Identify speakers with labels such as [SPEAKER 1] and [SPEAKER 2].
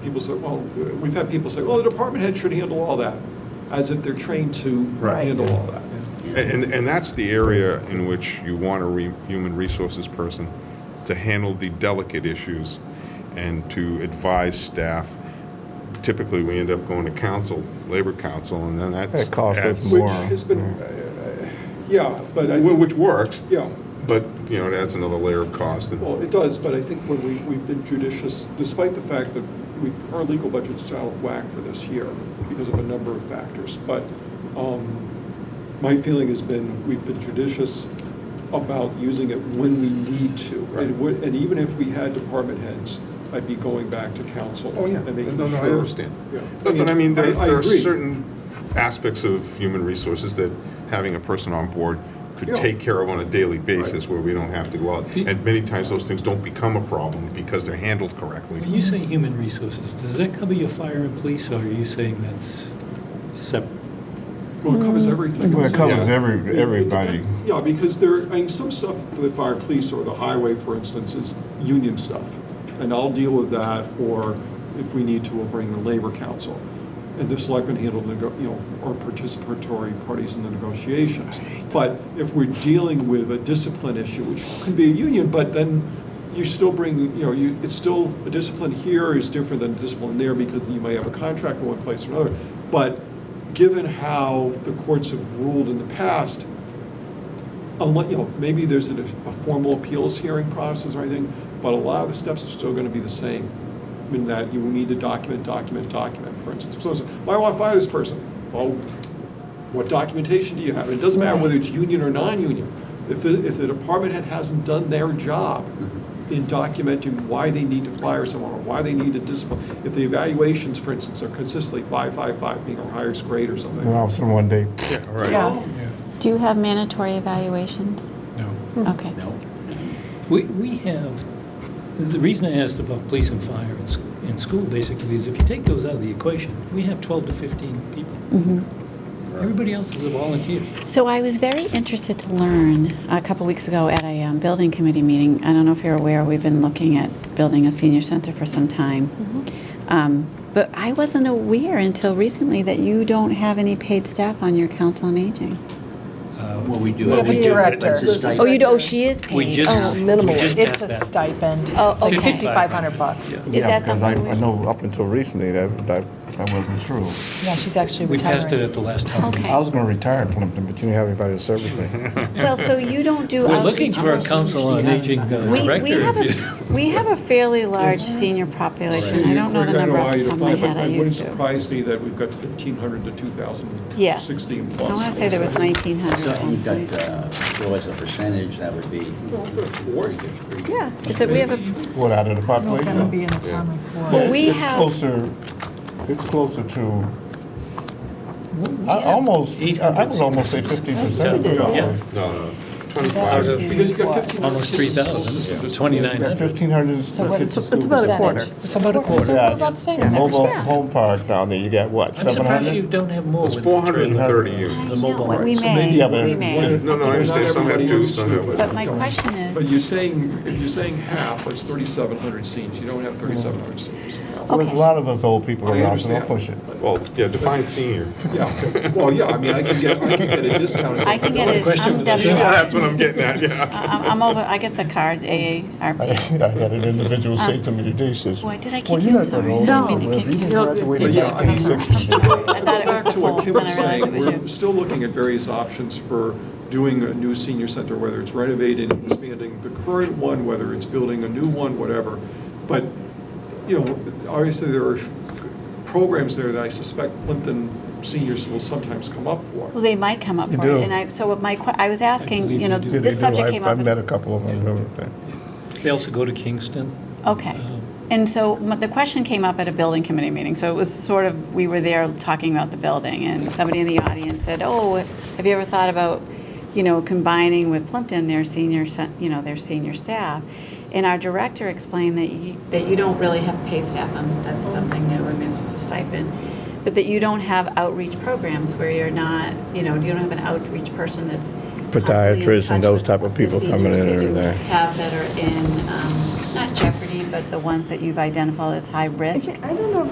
[SPEAKER 1] people say, well, we've had people say, well, the department head should handle all that, as if they're trained to
[SPEAKER 2] Right.
[SPEAKER 1] handle all that.
[SPEAKER 3] And, and that's the area in which you want a re- human resources person to handle the delicate issues and to advise staff. Typically, we end up going to council, labor council, and then that's.
[SPEAKER 2] That costs us
[SPEAKER 3] adds-
[SPEAKER 2] more.
[SPEAKER 1] Which has been, uh, yeah, but I
[SPEAKER 3] Wh-
[SPEAKER 1] think,
[SPEAKER 3] Which works,
[SPEAKER 1] yeah,
[SPEAKER 3] but, you know, it adds another layer of cost. and-
[SPEAKER 1] well, it does, but I think when we, we've been judicious, despite the fact that we, our legal budget's out of whack for this year because of a number of factors, but, um, my feeling has been, we've been judicious about using it when we need to.
[SPEAKER 3] Right.
[SPEAKER 1] And, we- and even if we had department heads, I'd be going back to council.
[SPEAKER 3] Oh, yeah.
[SPEAKER 1] And making
[SPEAKER 3] No,
[SPEAKER 1] sure.
[SPEAKER 3] no, I understand.
[SPEAKER 1] Yeah.
[SPEAKER 3] But, but I mean, there
[SPEAKER 1] I- I
[SPEAKER 3] there are
[SPEAKER 1] agree.
[SPEAKER 3] certain aspects of human resources that having a person on board
[SPEAKER 1] Yeah.
[SPEAKER 3] could take care of on a daily basis where we don't have to go out.
[SPEAKER 4] Do you-
[SPEAKER 3] And many times those things don't become a problem because they're handled correctly.
[SPEAKER 4] When you say human resources, does that cover your fire and police, or are you saying that's separate?
[SPEAKER 1] Well, it covers everything.
[SPEAKER 2] Well, it covers
[SPEAKER 3] Yeah.
[SPEAKER 1] It-
[SPEAKER 2] every,
[SPEAKER 1] it
[SPEAKER 2] everybody.
[SPEAKER 1] depend- Yeah, because there, I mean, some stuff for the fire police or the highway, for instance, is union stuff. And I'll deal with that, or if we need to, we'll bring the labor council. And the selectmen handle, the nego- you know, or participatory parties in the negotiations. But if we're dealing with a discipline issue, which can be a union, but then you still bring, you know, you, it's still, a discipline here is different than a discipline there because you may have a contract in one place or another. But given how the courts have ruled in the past, unless, you know, maybe there's a, a formal appeals hearing process or anything, but a lot of the steps are still gonna be the same, in that you will need to document, document, document, for instance. If someone says, "Well, I wanna fire this person, well, what documentation do you have? And it doesn't matter whether it's union or non-union. If the, if the department head hasn't done their job in documenting why they need to fire someone, or why they need to discipline, if the evaluations, for instance, are consistently five, five, five, being our highest grade or something,
[SPEAKER 2] And all of a sudden one day,
[SPEAKER 3] Yeah, all right.
[SPEAKER 5] Yeah. Do you have mandatory evaluations?
[SPEAKER 4] No.
[SPEAKER 5] Okay.
[SPEAKER 4] No. We, we have, the reason I asked about police and fire in, s- in school basically is if you take those out of the equation, we have 12 to 15 people.
[SPEAKER 5] Mm-hmm.
[SPEAKER 4] Everybody else is a volunteer.
[SPEAKER 5] So I was very interested to learn a couple weeks ago at a um, building committee meeting. I don't know if you're aware, we've been looking at building a senior center for some time. Um, but I wasn't aware until recently that you don't have any paid staff on your council on aging.
[SPEAKER 6] Well, we do.
[SPEAKER 7] Well,
[SPEAKER 6] have-
[SPEAKER 7] we
[SPEAKER 6] do, but
[SPEAKER 7] director.
[SPEAKER 6] it's a stipend.
[SPEAKER 5] Oh, you do, oh, she is paid.
[SPEAKER 4] We just-
[SPEAKER 5] Oh,
[SPEAKER 7] Minimal,
[SPEAKER 4] We just
[SPEAKER 7] it's a
[SPEAKER 4] passed that.
[SPEAKER 7] stipend.
[SPEAKER 5] Oh,
[SPEAKER 7] It's like
[SPEAKER 5] okay.
[SPEAKER 7] 5,500 bucks.
[SPEAKER 4] Yeah.
[SPEAKER 5] Is
[SPEAKER 2] yeah,
[SPEAKER 5] that
[SPEAKER 2] because I,
[SPEAKER 5] something?
[SPEAKER 2] I
[SPEAKER 5] we-
[SPEAKER 2] know up until recently that, that, that wasn't true.
[SPEAKER 7] Yeah, she's actually
[SPEAKER 4] We
[SPEAKER 7] retiring.
[SPEAKER 4] passed it at the last time.
[SPEAKER 5] Okay.
[SPEAKER 2] I was gonna retire from Plimpton, but you didn't have anybody to serve me.
[SPEAKER 5] Well, so you don't do.
[SPEAKER 4] We're
[SPEAKER 5] outreach
[SPEAKER 4] looking for a
[SPEAKER 5] also.
[SPEAKER 4] council on aging uh,
[SPEAKER 5] We,
[SPEAKER 4] director.
[SPEAKER 5] we have
[SPEAKER 4] if you-
[SPEAKER 5] a, we have a fairly large senior population. I don't know the
[SPEAKER 1] According to
[SPEAKER 5] number
[SPEAKER 1] IOI,
[SPEAKER 5] off the
[SPEAKER 1] you
[SPEAKER 5] top of my
[SPEAKER 1] define,
[SPEAKER 5] head,
[SPEAKER 1] but
[SPEAKER 5] I
[SPEAKER 1] It wouldn't
[SPEAKER 5] used to.
[SPEAKER 1] surprise me that we've got 1,500 to 2,000,
[SPEAKER 5] Yes.
[SPEAKER 1] 16
[SPEAKER 5] I
[SPEAKER 1] plus.
[SPEAKER 5] want to say there was nineteen hundred
[SPEAKER 6] So
[SPEAKER 5] at one
[SPEAKER 6] you've got,
[SPEAKER 5] point.
[SPEAKER 6] uh, so as a percentage, that would be.
[SPEAKER 1] Well, it's a fourth.
[SPEAKER 5] Yeah, it's a, we have a,
[SPEAKER 2] What, out of the
[SPEAKER 7] I don't know if that'll be
[SPEAKER 2] population?
[SPEAKER 7] in the town
[SPEAKER 5] Well,
[SPEAKER 7] report.
[SPEAKER 5] we
[SPEAKER 2] It's
[SPEAKER 5] have-
[SPEAKER 2] Closer, it's closer to,
[SPEAKER 4] We
[SPEAKER 2] I
[SPEAKER 4] have
[SPEAKER 2] almost, I I
[SPEAKER 4] 800
[SPEAKER 2] would almost say fifty percent.
[SPEAKER 4] Yeah. Yeah.
[SPEAKER 3] No, no, no.
[SPEAKER 7] So that
[SPEAKER 3] 25.
[SPEAKER 7] would be
[SPEAKER 1] Because you've got
[SPEAKER 7] what?
[SPEAKER 1] 1,500.
[SPEAKER 4] Almost 3,000, 2,900.
[SPEAKER 2] Fifteen hundred is.
[SPEAKER 7] So what- it's,
[SPEAKER 2] fifty
[SPEAKER 7] it's about a
[SPEAKER 2] schools.
[SPEAKER 7] quarter.
[SPEAKER 4] It's about a quarter.
[SPEAKER 2] Yeah.
[SPEAKER 7] We're about the same.
[SPEAKER 2] And Mobile
[SPEAKER 5] Yeah.
[SPEAKER 2] home park down there, you got what,
[SPEAKER 4] I'm
[SPEAKER 2] seven
[SPEAKER 4] surprised you
[SPEAKER 2] hundred?
[SPEAKER 4] don't have more.
[SPEAKER 3] It's
[SPEAKER 4] with the
[SPEAKER 3] 430
[SPEAKER 4] trailer.
[SPEAKER 3] units.
[SPEAKER 4] The
[SPEAKER 5] I know,
[SPEAKER 4] mobile
[SPEAKER 5] what we
[SPEAKER 4] homes.
[SPEAKER 5] may,
[SPEAKER 2] yeah, but-
[SPEAKER 5] we may.
[SPEAKER 3] No, no, I understand, some have two, some have one.
[SPEAKER 5] But my question
[SPEAKER 1] But
[SPEAKER 5] is,
[SPEAKER 1] you're saying, if you're saying half, it's 3,700 seniors. You don't have 3,700 seniors.
[SPEAKER 2] There's a
[SPEAKER 5] Okay.
[SPEAKER 2] lot of us old people
[SPEAKER 1] I
[SPEAKER 2] around, so
[SPEAKER 1] understand.
[SPEAKER 2] don't push it.
[SPEAKER 3] Well, yeah, define senior.
[SPEAKER 1] Yeah, well, yeah, I mean, I can get, I can get a discount.
[SPEAKER 5] I can get it,
[SPEAKER 4] question
[SPEAKER 5] I'm
[SPEAKER 4] with that.
[SPEAKER 5] W,
[SPEAKER 3] Yeah, That's
[SPEAKER 5] I-
[SPEAKER 3] what I'm getting at, yeah.
[SPEAKER 5] I'm, I'm over, I get the card, AARP.
[SPEAKER 2] I had an individual
[SPEAKER 5] Uh,
[SPEAKER 2] say to me today, says,
[SPEAKER 5] Boy, did I
[SPEAKER 2] Well,
[SPEAKER 5] kick
[SPEAKER 2] you're
[SPEAKER 5] you?
[SPEAKER 2] not that
[SPEAKER 5] Sorry, I
[SPEAKER 2] old.
[SPEAKER 5] didn't mean to kick
[SPEAKER 2] You
[SPEAKER 5] you.
[SPEAKER 2] don't have to wait
[SPEAKER 1] But
[SPEAKER 2] until
[SPEAKER 1] yeah, I mean,
[SPEAKER 2] 1960.
[SPEAKER 5] I thought it was
[SPEAKER 1] Back
[SPEAKER 5] the
[SPEAKER 1] to what
[SPEAKER 5] full,
[SPEAKER 1] Kim
[SPEAKER 5] then
[SPEAKER 1] was
[SPEAKER 5] I realized
[SPEAKER 1] saying,
[SPEAKER 5] it was
[SPEAKER 1] we're
[SPEAKER 5] you.
[SPEAKER 1] still looking at various options for doing a new senior center, whether it's renovating, expanding the current one, whether it's building a new one, whatever. But, you know, obviously, there are programs there that I suspect Plimpton seniors will sometimes come up for.
[SPEAKER 5] Well, they might come up
[SPEAKER 2] You
[SPEAKER 5] for it,
[SPEAKER 2] do.
[SPEAKER 5] and I, so what my, que- I was asking,
[SPEAKER 4] believe
[SPEAKER 5] you know,
[SPEAKER 4] you do.
[SPEAKER 2] Yeah, they
[SPEAKER 5] this
[SPEAKER 2] do.
[SPEAKER 5] subject
[SPEAKER 2] I've-
[SPEAKER 5] came up.
[SPEAKER 2] I've
[SPEAKER 5] in-
[SPEAKER 2] met a couple of them. over there.
[SPEAKER 4] They also go to Kingston.
[SPEAKER 5] Okay. And so m- the question came up at a building committee meeting. So it was sort of, we were there talking about the building, and somebody in the audience said, oh, have you ever thought about, you know, combining with Plimpton, their senior, se- you know, their senior staff? And our director explained that you, that you don't really have paid staff, um, that's something new, I mean, it's just a stipend, but that you don't have outreach programs where you're not, you know, you don't have an outreach person that's constantly in
[SPEAKER 2] Podiatrists and
[SPEAKER 5] touch
[SPEAKER 2] those
[SPEAKER 5] with
[SPEAKER 2] type of
[SPEAKER 5] the
[SPEAKER 2] people
[SPEAKER 5] seniors
[SPEAKER 2] coming in
[SPEAKER 5] that
[SPEAKER 2] and
[SPEAKER 5] you
[SPEAKER 2] there.
[SPEAKER 5] have that are in, um, not jeopardy, but the ones that you've identified as high risk?
[SPEAKER 7] I don't know if